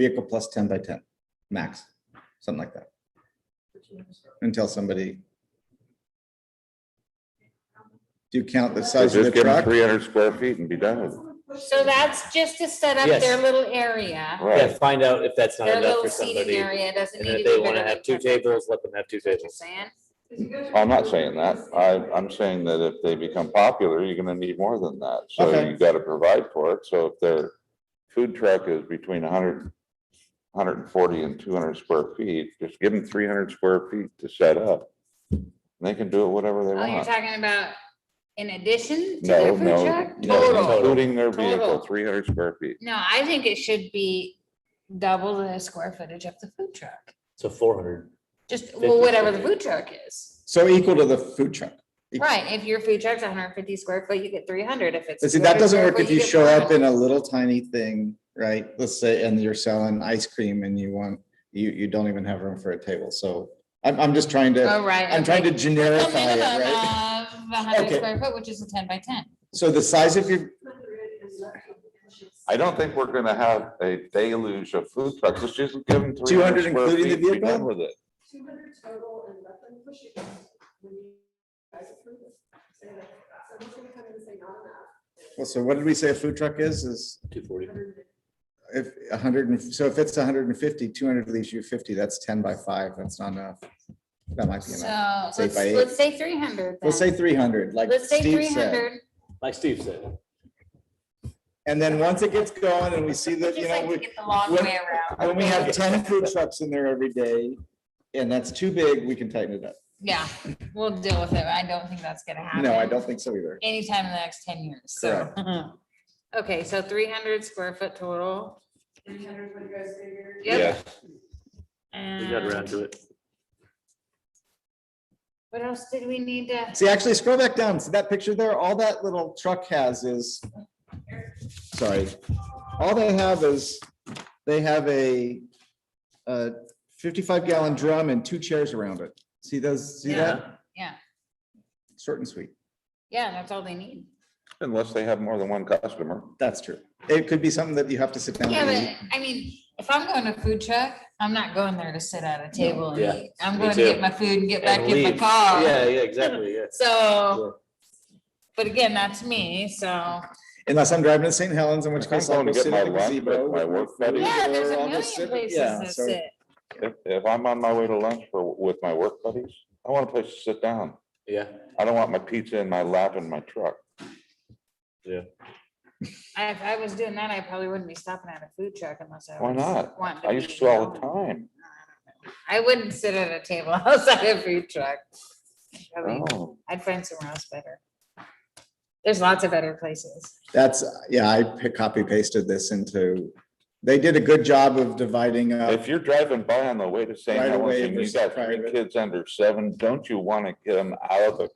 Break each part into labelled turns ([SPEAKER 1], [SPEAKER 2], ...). [SPEAKER 1] vehicle plus ten by ten, max, something like that, until somebody. Do you count the
[SPEAKER 2] So
[SPEAKER 1] size of
[SPEAKER 2] just
[SPEAKER 1] the
[SPEAKER 2] give them
[SPEAKER 1] truck?
[SPEAKER 2] three hundred square feet and be done with it.
[SPEAKER 3] So that's just to set up
[SPEAKER 4] Yes.
[SPEAKER 3] their little area,
[SPEAKER 4] Yeah,
[SPEAKER 2] Right.
[SPEAKER 4] find out if that's not
[SPEAKER 3] their
[SPEAKER 4] enough
[SPEAKER 3] little
[SPEAKER 4] for
[SPEAKER 3] seating
[SPEAKER 4] somebody. And
[SPEAKER 3] area, doesn't
[SPEAKER 4] then
[SPEAKER 3] need
[SPEAKER 4] if
[SPEAKER 3] to
[SPEAKER 4] they
[SPEAKER 3] be
[SPEAKER 4] want
[SPEAKER 3] bigger
[SPEAKER 4] to
[SPEAKER 3] than
[SPEAKER 4] have two tables, let them have two
[SPEAKER 3] you're
[SPEAKER 4] tables.
[SPEAKER 3] saying.
[SPEAKER 2] I'm not saying that. I, I'm saying that if they become popular, you're gonna need more than that. So
[SPEAKER 1] Okay.
[SPEAKER 2] you gotta provide for it. So if their food truck is between hundred, hundred and forty and two hundred square feet, just give them three hundred square feet to set up. And They can do it whatever they
[SPEAKER 3] Oh, you're
[SPEAKER 2] want.
[SPEAKER 3] talking about in addition to
[SPEAKER 2] No,
[SPEAKER 3] the food
[SPEAKER 2] no,
[SPEAKER 3] truck?
[SPEAKER 2] no,
[SPEAKER 3] Total.
[SPEAKER 2] including their vehicle,
[SPEAKER 3] Total.
[SPEAKER 2] three hundred square feet.
[SPEAKER 3] No, I think it should be double the square footage of the food truck,
[SPEAKER 4] So four hundred.
[SPEAKER 3] just,
[SPEAKER 4] Fifty
[SPEAKER 3] well, whatever the
[SPEAKER 4] square
[SPEAKER 3] food truck is.
[SPEAKER 1] So equal to the food truck. Equal.
[SPEAKER 3] Right, if your food truck's hundred and fifty square foot, you get three hundred, if it's.
[SPEAKER 1] But see, that
[SPEAKER 3] 200
[SPEAKER 1] doesn't
[SPEAKER 3] square
[SPEAKER 1] work
[SPEAKER 3] foot,
[SPEAKER 1] if you
[SPEAKER 3] get
[SPEAKER 1] show up
[SPEAKER 3] 400.
[SPEAKER 1] in a little tiny thing, right? Let's say, and you're selling ice cream and you want, you, you don't even have room for a table, so. I'm, I'm just trying
[SPEAKER 3] Oh,
[SPEAKER 1] to,
[SPEAKER 3] right.
[SPEAKER 1] I'm trying to generify
[SPEAKER 3] Minimum
[SPEAKER 1] it, right?
[SPEAKER 3] of hundred
[SPEAKER 1] Okay.
[SPEAKER 3] square foot, which is a ten by ten.
[SPEAKER 1] So the size of your,
[SPEAKER 2] I don't think we're gonna have a deluge of food trucks. Let's just give them three
[SPEAKER 1] 200
[SPEAKER 2] hundred square
[SPEAKER 1] including the
[SPEAKER 2] feet, and be done
[SPEAKER 1] vehicle?
[SPEAKER 2] with it.
[SPEAKER 5] Two hundred total and let them push it. when you guys approve it. Say that, Someone's gonna come in and say not enough.
[SPEAKER 1] well, so what did we say a food truck is, is
[SPEAKER 4] Two forty.
[SPEAKER 1] if a hundred and, so if it's 150, 200 leaves you fifty, that's ten by five, that's not enough. That might be
[SPEAKER 3] So
[SPEAKER 1] enough.
[SPEAKER 3] let's,
[SPEAKER 1] Say by eight.
[SPEAKER 3] let's say three hundred.
[SPEAKER 1] Let's say three hundred, like
[SPEAKER 3] Let's say
[SPEAKER 1] Steve
[SPEAKER 3] three
[SPEAKER 1] said.
[SPEAKER 3] hundred.
[SPEAKER 4] Like Steve said,
[SPEAKER 1] And then once it gets going and we see that, you
[SPEAKER 3] Just
[SPEAKER 1] know,
[SPEAKER 3] like to
[SPEAKER 1] we,
[SPEAKER 3] get the long
[SPEAKER 1] when-
[SPEAKER 3] way around.
[SPEAKER 1] when we have ten food trucks in there every day, and that's too big, we can tighten it up.
[SPEAKER 3] Yeah, we'll deal with it. I don't think that's gonna happen.
[SPEAKER 1] No, I don't think so either.
[SPEAKER 3] Anytime in the next ten years, so. Okay, so three hundred square foot total.
[SPEAKER 5] Three hundred, what you guys figure?
[SPEAKER 3] Yep.
[SPEAKER 4] we got around
[SPEAKER 3] And
[SPEAKER 4] to it.
[SPEAKER 3] what else did we need to?
[SPEAKER 1] See, actually scroll back down. See that picture there? All that little truck has is, sorry. All they have is, they have a, a fifty-five gallon drum and two chairs around it. See those, see that?
[SPEAKER 3] Yeah.
[SPEAKER 1] Short and sweet.
[SPEAKER 3] Yeah, that's all they need.
[SPEAKER 2] Unless they have more than one customer.
[SPEAKER 1] That's true. It could be something that you have to sit down
[SPEAKER 3] Yeah,
[SPEAKER 1] and eat.
[SPEAKER 3] but I mean, if I'm going to food truck, I'm not going there to sit at a table
[SPEAKER 4] Yeah,
[SPEAKER 3] and eat. I'm
[SPEAKER 4] me
[SPEAKER 3] going to get
[SPEAKER 4] too.
[SPEAKER 3] my food and get back
[SPEAKER 4] And
[SPEAKER 3] in my
[SPEAKER 4] leave.
[SPEAKER 3] car.
[SPEAKER 4] Yeah, yeah, exactly, yeah.
[SPEAKER 3] So, but again, that's me, so.
[SPEAKER 1] Unless I'm driving to St. Helens, in which
[SPEAKER 2] If I'm
[SPEAKER 1] case I'll
[SPEAKER 2] going
[SPEAKER 1] go
[SPEAKER 2] to get
[SPEAKER 1] sit at the
[SPEAKER 2] my lunch
[SPEAKER 1] gazebo.
[SPEAKER 2] with
[SPEAKER 1] with my
[SPEAKER 2] my work
[SPEAKER 1] food
[SPEAKER 2] buddy.
[SPEAKER 3] Yeah, there's a
[SPEAKER 1] or I'll
[SPEAKER 3] million
[SPEAKER 1] just sit-
[SPEAKER 3] places
[SPEAKER 1] yeah,
[SPEAKER 3] that
[SPEAKER 1] so-
[SPEAKER 3] sit.
[SPEAKER 2] If, if I'm on my way to lunch for, with my work buddies, I want a place to sit down.
[SPEAKER 4] Yeah,
[SPEAKER 2] I don't want my pizza in my lap in my truck.
[SPEAKER 3] I- If I was doing that, I probably wouldn't be stopping at a food truck unless I.
[SPEAKER 2] Why
[SPEAKER 3] was
[SPEAKER 2] not?
[SPEAKER 3] wanting
[SPEAKER 2] I
[SPEAKER 3] be
[SPEAKER 2] used to all the
[SPEAKER 3] alone.
[SPEAKER 2] time.
[SPEAKER 3] I wouldn't sit at a table outside a food truck. I mean,
[SPEAKER 2] Oh,
[SPEAKER 3] I'd find somewhere else better. There's lots of better places.
[SPEAKER 1] That's, yeah, I pick, copy pasted this into, they did a good job of dividing up.
[SPEAKER 2] If you're driving by on the way to St.
[SPEAKER 1] Right
[SPEAKER 2] Helens
[SPEAKER 1] away
[SPEAKER 2] and you
[SPEAKER 1] versus
[SPEAKER 2] got three
[SPEAKER 1] private.
[SPEAKER 2] kids under seven, don't you want to get them out of the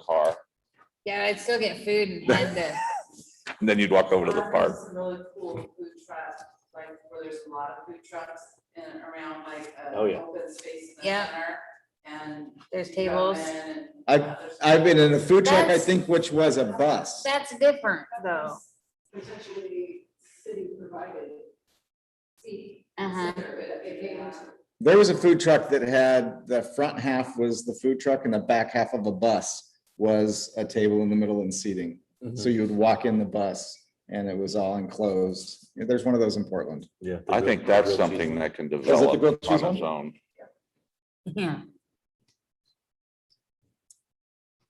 [SPEAKER 2] car?
[SPEAKER 3] Yeah, I'd still get food and head there.
[SPEAKER 2] And then you'd walk over to the
[SPEAKER 6] There's
[SPEAKER 2] park.
[SPEAKER 6] Some really cool food trucks, like where there's a lot of food trucks in and around like a
[SPEAKER 4] Oh, yeah.
[SPEAKER 6] open space in the
[SPEAKER 3] Yeah.
[SPEAKER 6] center. And.
[SPEAKER 3] There's
[SPEAKER 6] you go
[SPEAKER 3] tables.
[SPEAKER 6] in and
[SPEAKER 1] I've-
[SPEAKER 6] others-
[SPEAKER 1] I've been in a food truck, I
[SPEAKER 3] That's-
[SPEAKER 1] think, which was a bus.
[SPEAKER 3] That's different though.
[SPEAKER 5] Potentially city provided. seat.
[SPEAKER 3] Uh-huh.
[SPEAKER 5] Consider it if they want to.
[SPEAKER 1] There was a food truck that had, the front half was the food truck and the back half of a bus was a table in the middle and seating.
[SPEAKER 4] Mm-hmm.
[SPEAKER 1] So you would walk in the bus and it was all enclosed. There's one of those in Portland.
[SPEAKER 4] yeah.
[SPEAKER 2] I think that's something that can
[SPEAKER 1] the
[SPEAKER 2] develop
[SPEAKER 1] grilled cheese
[SPEAKER 2] on
[SPEAKER 1] one?
[SPEAKER 2] its own.
[SPEAKER 3] Yeah.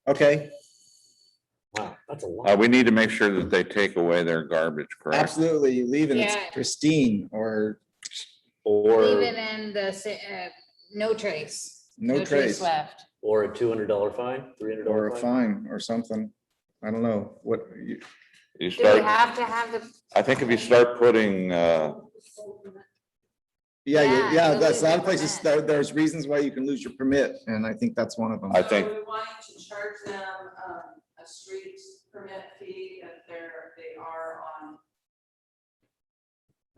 [SPEAKER 1] Okay,
[SPEAKER 4] Wow, that's a
[SPEAKER 2] Uh,
[SPEAKER 4] lot.
[SPEAKER 2] we need to make sure that they take away their garbage, correct?
[SPEAKER 1] absolutely. You leave and it's
[SPEAKER 3] Yeah.
[SPEAKER 1] pristine or
[SPEAKER 4] Or,
[SPEAKER 3] Even in the, sa- uh, no trace.
[SPEAKER 1] no trace
[SPEAKER 3] Left.
[SPEAKER 4] or a two hundred dollar fine, three hundred
[SPEAKER 1] or
[SPEAKER 4] dollar
[SPEAKER 1] a
[SPEAKER 4] fine.
[SPEAKER 1] fine or something. I don't know what you,
[SPEAKER 2] You
[SPEAKER 3] Do we
[SPEAKER 2] start,
[SPEAKER 3] have to have the?
[SPEAKER 2] I think if you start putting, uh,
[SPEAKER 1] Yeah,
[SPEAKER 3] Yeah,
[SPEAKER 1] you- yeah,
[SPEAKER 3] you'll
[SPEAKER 1] that's
[SPEAKER 3] lose
[SPEAKER 1] a lot
[SPEAKER 3] your
[SPEAKER 1] of places,
[SPEAKER 3] permit.
[SPEAKER 1] there, there's reasons why you can lose your permit, and I think that's one of them.
[SPEAKER 2] I think-
[SPEAKER 6] So we want you to charge them, um, a street permit fee if they're, they are on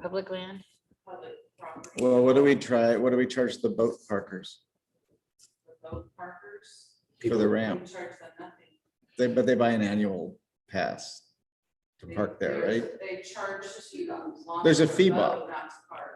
[SPEAKER 3] Public land?
[SPEAKER 6] public property.
[SPEAKER 1] Well, what do we try, what do we charge the boat parkers
[SPEAKER 6] with Boat parkers.
[SPEAKER 1] for the
[SPEAKER 6] We
[SPEAKER 1] ramp?
[SPEAKER 6] charge them nothing.
[SPEAKER 1] They, but they buy an annual pass. to park there, right?
[SPEAKER 6] They charge to. um,
[SPEAKER 1] There's a fee
[SPEAKER 6] long-term um,
[SPEAKER 1] bump.
[SPEAKER 6] load, Not to park.